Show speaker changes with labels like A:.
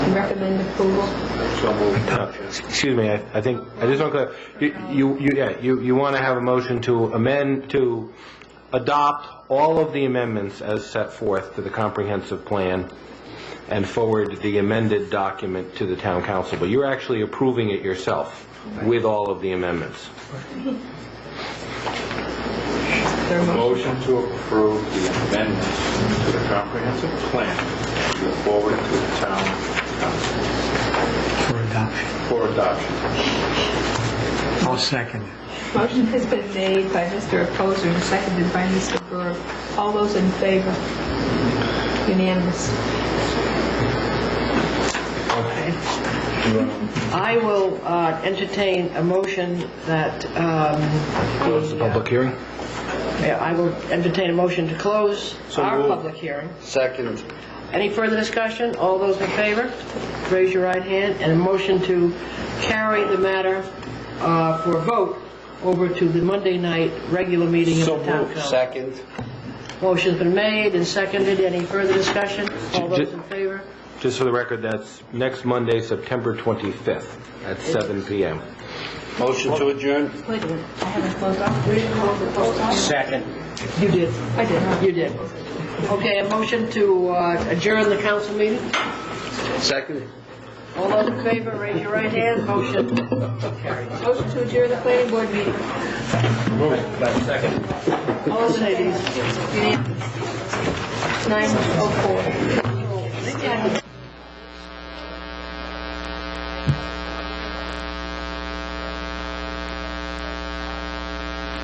A: recommend approval.
B: So moved. Excuse me, I I think, I just want to, you, you, you- yeah, you, you want to have a motion to amend, to adopt all of the amendments as set forth to the comprehensive plan and forward the amended document to the town council, but you're actually approving it yourself with all of the amendments.
C: Motion to approve the amendments to the comprehensive plan to go forward to the town council
D: for adoption.
C: for adoption.
D: I'll second it.
A: Motion has been made by Mr. Reposer and seconded by Mr. Burke. All those in favor? Unanimous.
E: I will uh, entertain a motion that, um,
B: Close the public hearing?
E: yeah, I will entertain a motion to close our
B: moved.
E: public hearing.
F: Second.
E: Any further discussion? All those in favor, raise your right hand, and a motion to carry the matter uh, for a vote over to the Monday night regular meeting of the town council.
F: Second.
E: Motion's been made and seconded. Any further discussion? All
B: Ju- ju-
E: those in favor?
B: Just for the record, that's next Monday, September 25th, at 7 PM.
F: Motion to adjourn?
A: Wait a minute, I haven't closed off. We didn't close the closed off?
F: Second.
E: You did.
A: I did, huh?
E: You did. Okay, a motion to uh, adjourn the council meeting?
F: Second.
E: All those in favor, raise your right hand. Motion carried.
A: Motion to adjourn the planning board meeting.
E: All those in favor? oh
A: Unanimous. 9:04.